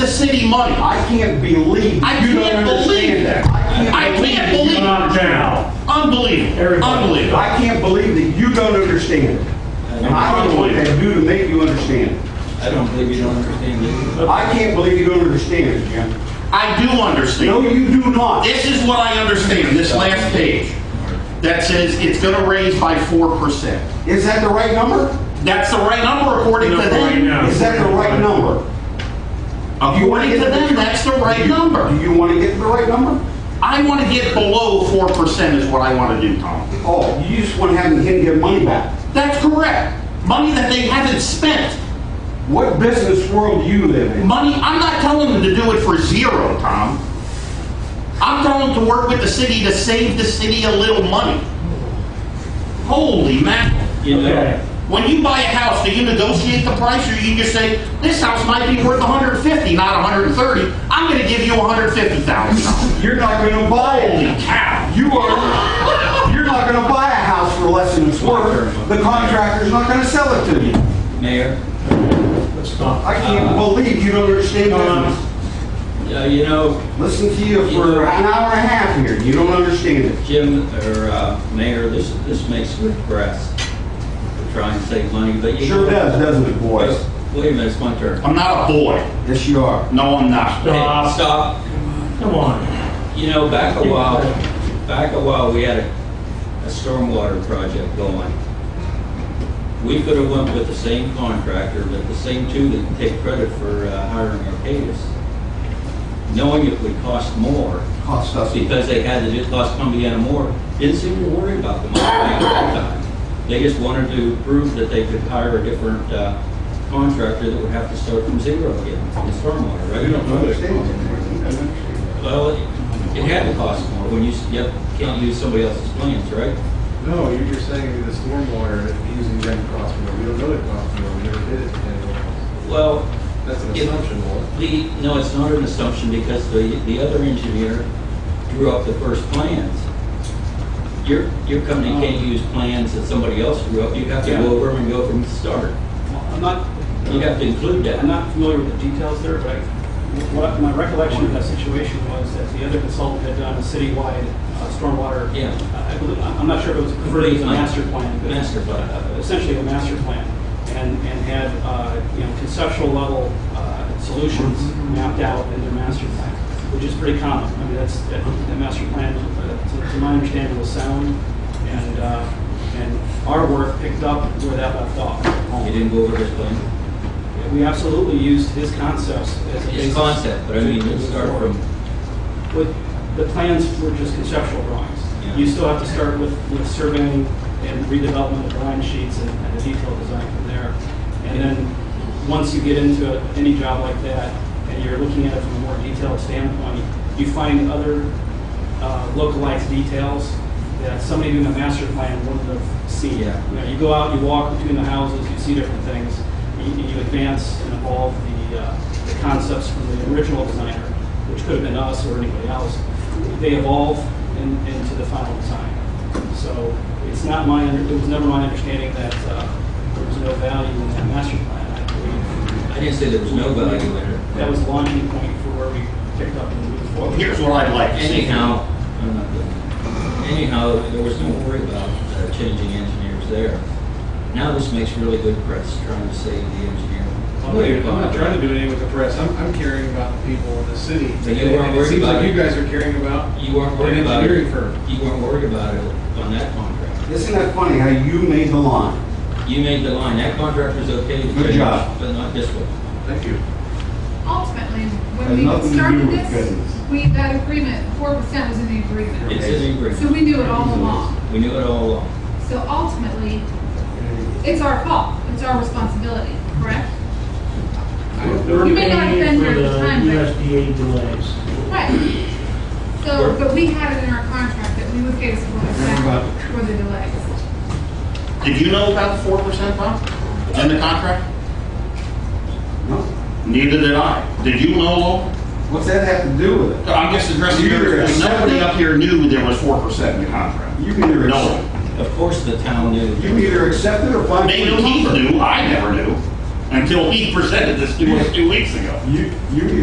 city money. I can't believe I you can't don't believe understand that. that. I can't believe. You're not down. Unbelievable, Everybody. unbelievable. I can't believe that you don't understand it. And I don't know what to do to make you understand it. I don't believe you don't understand it. I can't believe you don't understand it, Jim. I do No, understand. you do not. This is what I understand, this last page, that says it's gonna raise by 4%. Is that the right number? That's the right number according to Number right them. now. Is that the right number? You wanna According to get the- them, that's the right Do number. you want to get to the right number? I wanna get below 4% is what I wanna do, Tom. Oh, you just want to have him get money back. That's correct. Money that they haven't spent. What business world do you live in? Money, I'm not telling them to do it for zero, Tom. I'm telling them to work with the city to save the city a little money. Holy mackerel. You know, Okay. When you buy a house, do you negotiate the price or you just say, this house might be worth 150, not 130. I'm gonna give you 150,000. You're not going to buy Holy it. cow. You are, you're not going to buy a house for less than it's worth. The contractor's not going to sell it to you. Mayor, Let's not. I can't believe you don't understand Uh, business. uh, you know, Listen to you for an hour and a half here. You don't understand it. Jim, or uh, Mayor, this, this makes me depressed. We're trying to save money, but you... Sure does, doesn't it, boys? Wait a minute, it's my turn. I'm not a boy. Yes, you are. No, I'm not. Hey, Stop. Stop. Come on. You know, back a while, back a while, we had a, a stormwater project going. We could have went with the same contractor, but the same two that can take credit for uh, hiring Arcadis, knowing it would cost more, Cost us. because they had to do, cost Cumbiana more, didn't seem to worry about the money back that time. They just wanted to prove that they could hire a different uh, contractor that would have to start from zero again in stormwater, right? You don't understand it. Well, it it had to cost more when you, s- yep, can't use somebody else's plans, right? No, you're just saying the stormwater is using them cost more. We don't know it cost more. We never did it. And Well, That's an Yeah. assumption, Walt. the, no, it's not an assumption because the, the other engineer drew up the first plans. Your, your company can't use plans that somebody else drew up. You have to Yeah. go over them and go from the start. I'm not, You have to include that. I'm not familiar with the details there, but I- what, my recollection of that situation was that the other consultant had done a citywide uh, stormwater. uh, Yeah. I believe, I'm I'm not sure if it was converted to a Complete plan. master plan. but- Master plan. uh, Essentially a master plan, and, and had, uh, you know, conceptual level uh, solutions mapped out in their master plan, which is pretty common. I mean, that's, that that master plan, uh, to to my understanding, was sound, and, uh, and our work picked up where that left off. You didn't go over his plan. We absolutely used his concepts as a His basis. concept, but I mean, you start from, But the plans were just conceptual drawings. Yeah. You still have to start with, with surveying and redevelopment of line sheets and, and the detailed design from there. And then, once you get into any job like that, and you're looking at it from a more detailed standpoint, you find other uh, localized details that somebody doing a master plan wouldn't have seen. Yeah. You know, you go out, you walk between the houses, you see different things, and you you advance and evolve the, uh, the concepts from the original designer, which could have been us or anybody else. They evolve in- into the final design. So it's not my, under- it was never my understanding that uh, there was no value in that master plan, I believe. I didn't say there was no value in it. That was the launching point for where we picked up and moved forward. Here's what I'd like to see. Anyhow, I'm not done. anyhow, there was no worry about uh, changing engineers there. Now this makes really good press trying to save the engineer. I'm not, I'm not trying to do anything with the press. I'm, I'm caring about the people in the city. But you weren't And worried It seems about like it. you guys are caring about. You weren't worried An about it. engineering firm. You weren't worried about it on that contract. Isn't that funny how you made the line? You made the line, that contractor's okay to Good change, job. but not this one. Thank you. Ultimately, Has when we nothing to do started with goodness. this, we, that agreement, four percent was in the agreement. It's in the So agreement. we knew it all along. We knew it all along. So ultimately, it's our fault, it's our responsibility, correct? We're You may not have paying been here for at the the time, but- USDA delays. Right. So, but we had it in our contract that we would pay us four percent for the delays. Did you know about the 4%, Tom? In the contract? No. Neither did I. Did you know, Lowell? What's that have to do with it? So I'm just addressing your, nobody up here knew there was four percent in the contract. You can either, No one. Of course, the town knew. you can either accept it or find. They knew he knew, I never knew, until he presented this to us two weeks ago. You, you either